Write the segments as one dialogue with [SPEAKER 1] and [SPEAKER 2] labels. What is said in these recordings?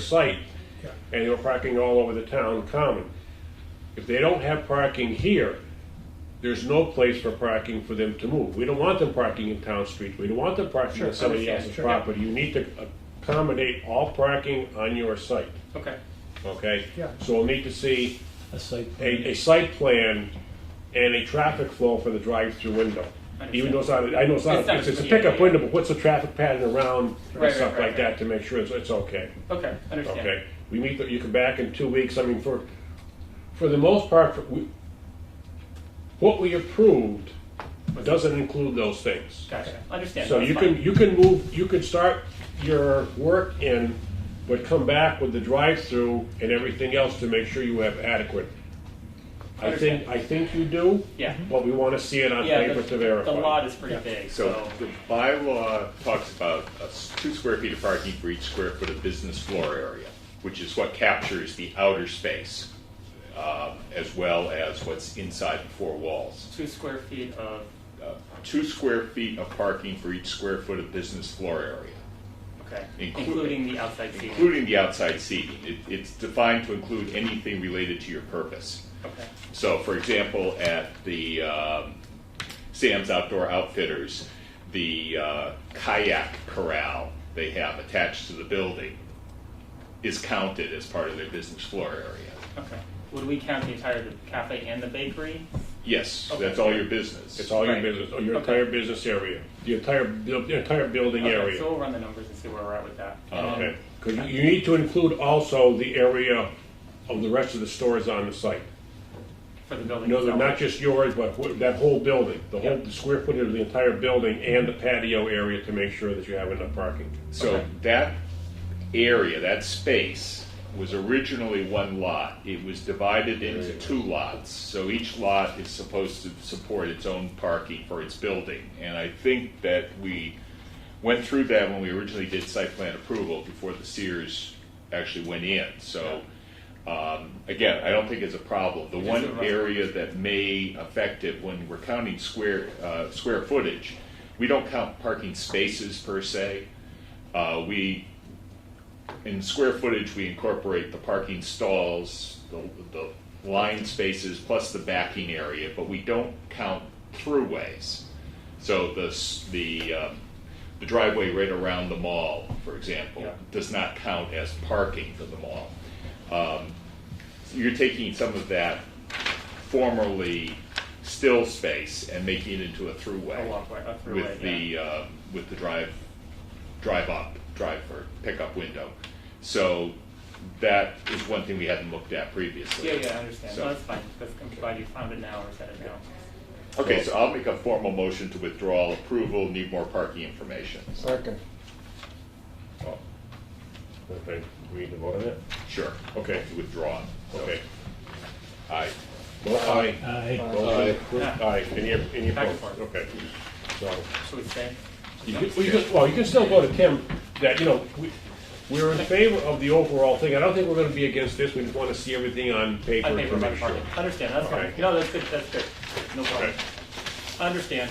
[SPEAKER 1] site,
[SPEAKER 2] Yeah.
[SPEAKER 1] and they were parking all over the town common. If they don't have parking here, there's no place for parking for them to move. We don't want them parking in town streets, we don't want them parking on somebody
[SPEAKER 3] understand,
[SPEAKER 1] else's
[SPEAKER 3] sure.
[SPEAKER 1] property. You need to accommodate all parking on your site,
[SPEAKER 3] Okay.
[SPEAKER 1] okay?
[SPEAKER 2] Yeah.
[SPEAKER 1] So we'll need to see
[SPEAKER 4] A site plan.
[SPEAKER 1] a, a site plan and a traffic flow for the drive-through window. Even though it's not, I know it's not,
[SPEAKER 3] It's not-
[SPEAKER 1] it's it's a
[SPEAKER 3] yeah,
[SPEAKER 1] pickup
[SPEAKER 3] yeah.
[SPEAKER 1] window, but what's the traffic pattern around
[SPEAKER 3] Right,
[SPEAKER 1] and stuff
[SPEAKER 3] right, right,
[SPEAKER 1] like that to make sure it's, it's okay,
[SPEAKER 3] Okay. Understand.
[SPEAKER 1] okay? We meet, the- you come back in two weeks, I mean, for, for the most part, for- we- what we approved doesn't include those things.
[SPEAKER 3] Gotcha. Understand.
[SPEAKER 1] So
[SPEAKER 3] That's
[SPEAKER 1] you
[SPEAKER 3] fine.
[SPEAKER 1] can, you can move, you can start your work in, but come back with the drive-through and everything else to make sure you have adequate. I think, I think you do.
[SPEAKER 3] Yeah.
[SPEAKER 1] But we wanna see it on
[SPEAKER 3] Yeah,
[SPEAKER 1] paper
[SPEAKER 3] the-
[SPEAKER 1] to verify.
[SPEAKER 3] The lot is pretty big,
[SPEAKER 5] So
[SPEAKER 3] so
[SPEAKER 5] the bylaw talks about uh, s- two square feet of parking for each square foot of business floor area, which is what captures the outer space, um, as well as what's inside the four walls.
[SPEAKER 3] two square feet of.
[SPEAKER 5] Uh, Two square feet of parking for each square foot of business floor area,
[SPEAKER 3] Okay.
[SPEAKER 5] Including-
[SPEAKER 3] Including the outside seating.
[SPEAKER 5] including the outside seating. It, it's defined to include anything related to your purpose.
[SPEAKER 3] Okay.
[SPEAKER 5] So, for example, at the um, Sam's Outdoor Outfitters, the uh, kayak corral they have attached to the building is counted as part of their business floor area.
[SPEAKER 3] Okay. Would we count the entire the cafe and the bakery?
[SPEAKER 5] Yes,
[SPEAKER 3] Okay.
[SPEAKER 5] that's all your business.
[SPEAKER 1] It's all your
[SPEAKER 3] Right.
[SPEAKER 1] business, or your
[SPEAKER 3] Okay.
[SPEAKER 1] entire business area, the entire, buil- the entire building
[SPEAKER 3] Okay,
[SPEAKER 1] area. Oh,
[SPEAKER 3] So we'll run the numbers and see where we're at with that. And then-
[SPEAKER 1] Okay, because Um, you need to include also the area of the rest of the stores on the site.
[SPEAKER 3] For the building.
[SPEAKER 1] No, they're
[SPEAKER 3] itself.
[SPEAKER 1] not just yours, but wh- that whole building, the whole,
[SPEAKER 3] Yeah.
[SPEAKER 1] the square footage of the entire building and the patio area to make sure that you have enough parking.
[SPEAKER 5] So
[SPEAKER 3] Okay.
[SPEAKER 5] that area, that space, was originally one lot. It was divided into two lots. So each lot is supposed to support its own parking for its building. And I think that we went through that when we originally did site plan approval before the Sears actually went in. So um, again, I don't think it's a problem. The
[SPEAKER 3] It
[SPEAKER 5] one
[SPEAKER 3] isn't a-
[SPEAKER 5] area that may affect it when we're counting square uh, square footage, we don't count parking spaces per se. Uh, we, in square footage, we incorporate the parking stalls, the, the line spaces, plus the backing area, but we don't count throughways. So the, s- the, um, the driveway right around the mall, for example,
[SPEAKER 3] Yeah.
[SPEAKER 5] does not count as parking for the mall. Um, You're taking some of that formerly still space and making it into a throughway.
[SPEAKER 3] A walkway, a throughway,
[SPEAKER 5] With
[SPEAKER 3] yeah.
[SPEAKER 5] the, uh, with the drive, drive up, drive or pickup window. So that is one thing we hadn't looked at previously.
[SPEAKER 3] Yeah, yeah, I understand.
[SPEAKER 5] So-
[SPEAKER 3] No, that's fine. That's, I'm glad you found it now or said it now.
[SPEAKER 5] Okay, so I'll make a formal motion to withdraw approval, need more parking information.
[SPEAKER 6] Second.
[SPEAKER 1] Okay, Oh. we need to vote on that?
[SPEAKER 5] Sure,
[SPEAKER 1] Okay,
[SPEAKER 5] withdraw.
[SPEAKER 1] okay.
[SPEAKER 5] Aye. Uh,
[SPEAKER 1] Vote aye.
[SPEAKER 4] Aye.
[SPEAKER 1] Motion approved.
[SPEAKER 3] Aye.
[SPEAKER 1] Aye, any, any
[SPEAKER 3] Back and
[SPEAKER 1] opposed?
[SPEAKER 3] forth.
[SPEAKER 1] Okay, so.
[SPEAKER 3] Should we say?
[SPEAKER 1] You could- Well, you could- well, you can still go to Tim, that, you know, we, we're in favor of the overall thing, I don't think we're gonna be against this, we just wanna see everything on paper.
[SPEAKER 3] I think
[SPEAKER 1] to
[SPEAKER 3] we're about
[SPEAKER 1] make
[SPEAKER 3] to
[SPEAKER 1] sure.
[SPEAKER 3] park it. Understand, that's fine.
[SPEAKER 1] Alright.
[SPEAKER 3] No, that's good, that's good. No problem.
[SPEAKER 1] Okay.
[SPEAKER 3] I understand.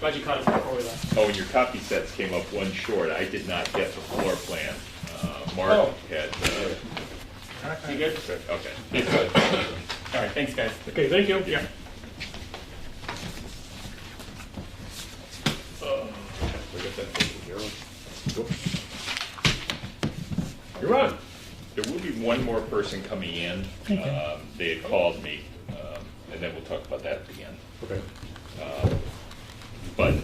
[SPEAKER 3] Glad you caught us before we left.
[SPEAKER 5] Oh, and your copy sets came up one short. I did not get the floor plan. Uh, Mark
[SPEAKER 3] Oh.
[SPEAKER 5] had, uh,
[SPEAKER 3] You good?
[SPEAKER 5] okay.
[SPEAKER 3] Alright, thanks guys.
[SPEAKER 1] Okay, thank you. Yeah. You're on.
[SPEAKER 5] There will be one more person coming in. Um, They had called me, um, and then we'll talk about that at the end.
[SPEAKER 1] Okay.
[SPEAKER 5] But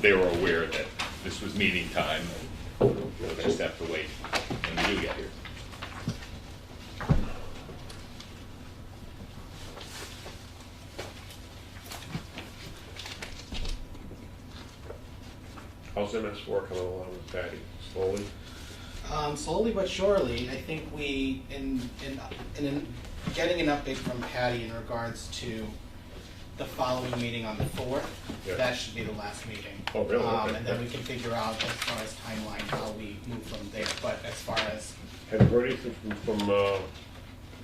[SPEAKER 5] they were aware that this was meeting time, and we'll just have to wait when we do get here.
[SPEAKER 1] How's MS four coming along with Patty? Slowly?
[SPEAKER 6] Um, slowly but surely, I think we, in, in, in, in getting an update from Patty in regards to the following meeting on the fourth,
[SPEAKER 1] Yeah.
[SPEAKER 6] that should be the last meeting.
[SPEAKER 1] Oh, really?
[SPEAKER 6] Um,
[SPEAKER 1] Okay.
[SPEAKER 6] and then we can figure out as far as timeline, how we move from there, but as far as,
[SPEAKER 1] Have you heard anything from, from, uh,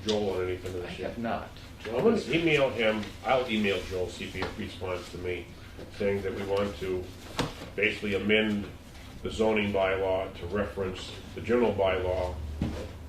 [SPEAKER 1] Joel on anything of this yet?
[SPEAKER 5] not.
[SPEAKER 1] I'm gonna email him, I'll email Joel, see if he responds to me, saying that we want to basically amend the zoning bylaw to reference the general bylaw